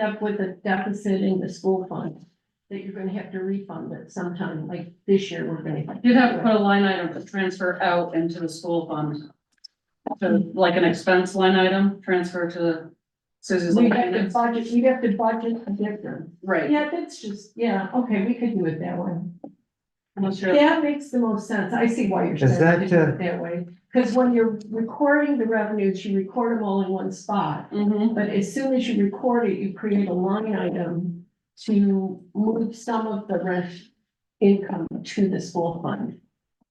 up with a deficit in the school fund that you're gonna have to refund it sometime, like this year, we're gonna. You'd have to put a line item to transfer out into the school fund. So like an expense line item, transfer to the Susie's. We line have to item. budget, we have to budget a difference. Right. Yeah, that's just, yeah, okay, we could do it that way. Unless you're- That makes the most sense. I see why you're Is saying to that, do uh, it that way. Because when you're recording the revenues, you record them all in one spot. Mhm. But as soon as you record it, you create a line item to move some of the rent income to the school fund.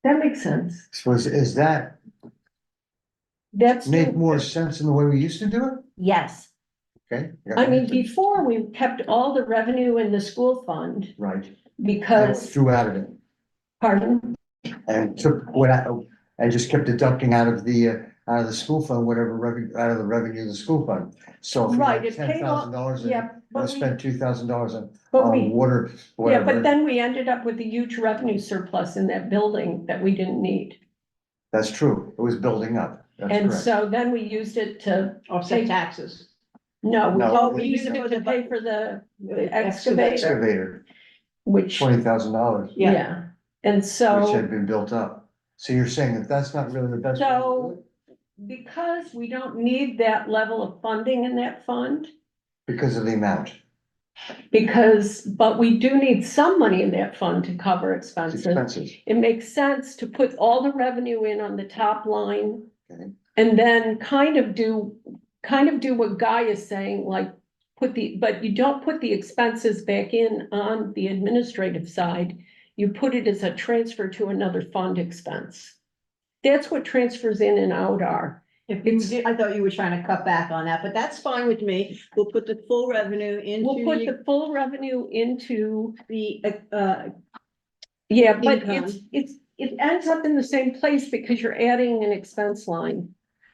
That makes sense. So is, is that That's, make more sense in the way we used to do it? yes. Okay. got I mean, that. before we kept all the revenue in the school fund Right, I because, threw out of it pardon, and took what I, I just kept deducting out of the, uh, out of the school fund, whatever revenue, out of the revenue of the school fund. So if you Right, had it ten paid off- thousand dollars and yeah, I but we, spent two thousand dollars on, but on we, water, yeah, but whatever, then we ended up with a huge revenue surplus in that building that we didn't need. that's true, it was building up, And that's correct. so then we used it to, offset taxes. no, we- No, well, we we- used it to pay for the excavator, Excavator, which, twenty thousand dollars, which Yeah, yeah. And so. had been built up. So you're saying that that's not really the best. way to do So- it? Because we don't need that level of funding in that fund, Because of the amount. because, but we do need some money in that fund to cover It's expenses. expensive. It makes sense to put all the revenue in on the top line. Okay. And then kind of do, kind of do what Guy is saying, like, put the, but you don't put the expenses back in on the administrative side. You put it as a transfer to another fund expense. That's what transfers in and out are. If you did, I thought you were trying to cut back on that, but that's fine with me. We'll put the full revenue We'll put into the full revenue into, the, uh, uh, yeah, but Income. it's, it's, it ends up in the same place because you're adding an expense line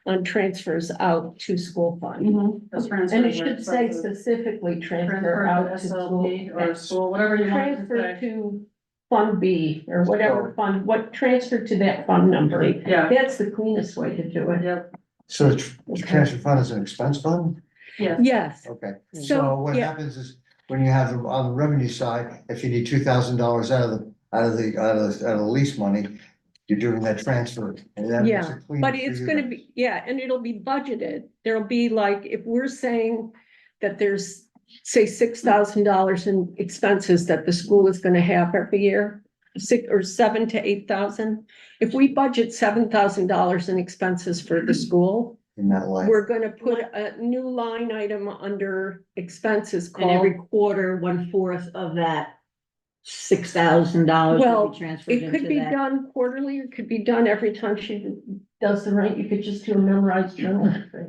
on transfers out to school fund. Mhm. Those transfers And are it should say expensive. specifically transfer Transfer out to to SLB school. or school, whatever you want to Transfer say. to fund B or whatever fund, what, transfer to that fund number. Yeah, That's the cleanest way to do it. yep, So the tr- transfer fund is an expense fund? yeah. Yes, Okay, so so, what yeah, happens is when you have the- on the revenue side, if you need two thousand dollars out of the, out of the, out of the, out of the lease money, you're doing that transfer and that makes Yeah, it clean. but for it's you. gonna be, yeah, and it'll be budgeted. There'll be like, if we're saying that there's, say, six thousand dollars in expenses that the school is gonna have every year, six or seven to eight thousand. If we budget seven thousand dollars in expenses for the school, In that light. We're gonna put a new line item under expenses and every called, quarter, one fourth of that six thousand dollars Well, will be transferred it could into be that. done quarterly, it could be done every time she does the rent, you could just do a memorized journal entry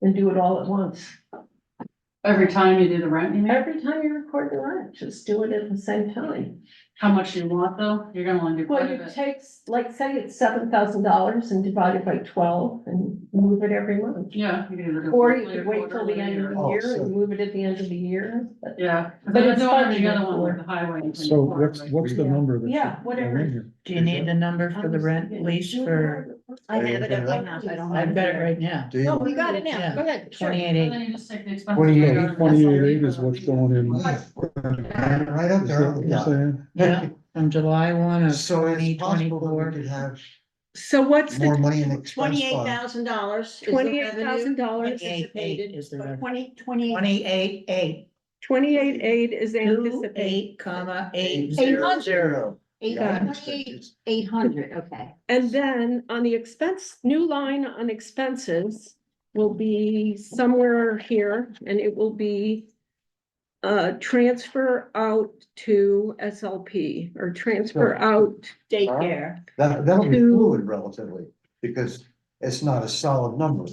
And do it all at once. Every time you do the rent, you mean? Every time you record the rent, just do it at the same time. How much you want though? You're gonna want to do Well, quite a you bit. take, like, say it's seven thousand dollars and divide it by twelve and move it every month. Yeah. you can either do Or you quarterly could wait till the quarterly end of or- the Oh, year so- and move it at the end of the year. but- Yeah, but But then it's don't have the budgeted other one for. with the highway. and So what's, quarterly. what's the Yeah. number that? Yeah, should go whatever. in here? Do you need the number for the rent lease for, I have it at my house, I don't have I've it got it there. right now, Do No, you- we got it now, Yeah. go ahead. sure. twenty-eight And eight. then you just take the expenses. Twenty-eight, out of the- Twenty-eight eight is what's going in. Right Is right up that there. what you're yeah. saying? yeah, from July one of So twenty it's possible that we twenty-four. could have So what's more the money in expense Twenty-eight fund. thousand dollars. twenty-eight thousand dollars? Anticipated, Is the but revenue. twenty, twenty. Twenty-eight eight, Twenty-eight eight is two anticipated, eight comma eight Eight zero. hundred. Zero. Eight, Yeah, I understand. twenty-eight, eight hundred, okay. and then on the expense, new line on expenses will be somewhere here, and it will be uh, transfer out to SLP, or transfer Sure. out, Daycare. That, that'll be to- fluid relatively, because it's not a solid number.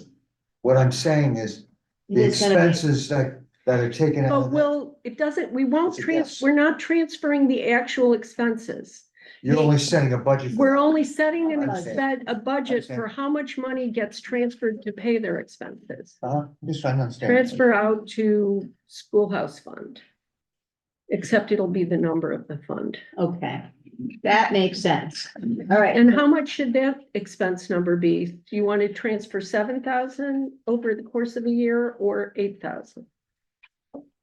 What I'm saying is, the It's gonna be- expenses that, that are taken out. but of that, will, it doesn't, we won't It's a trans, guess. we're not transferring the actual expenses. You're only setting a budget. for We're that. only setting an Understand. expen a budget Understand. for how much money gets transferred to pay their expenses. Uh-huh, Just trying to understand. Transfer out to schoolhouse fund. Except it'll be the number of the fund. Okay, that makes sense. All right. And how much should that expense number be? Do you want to transfer seven thousand over the course of a year or eight thousand?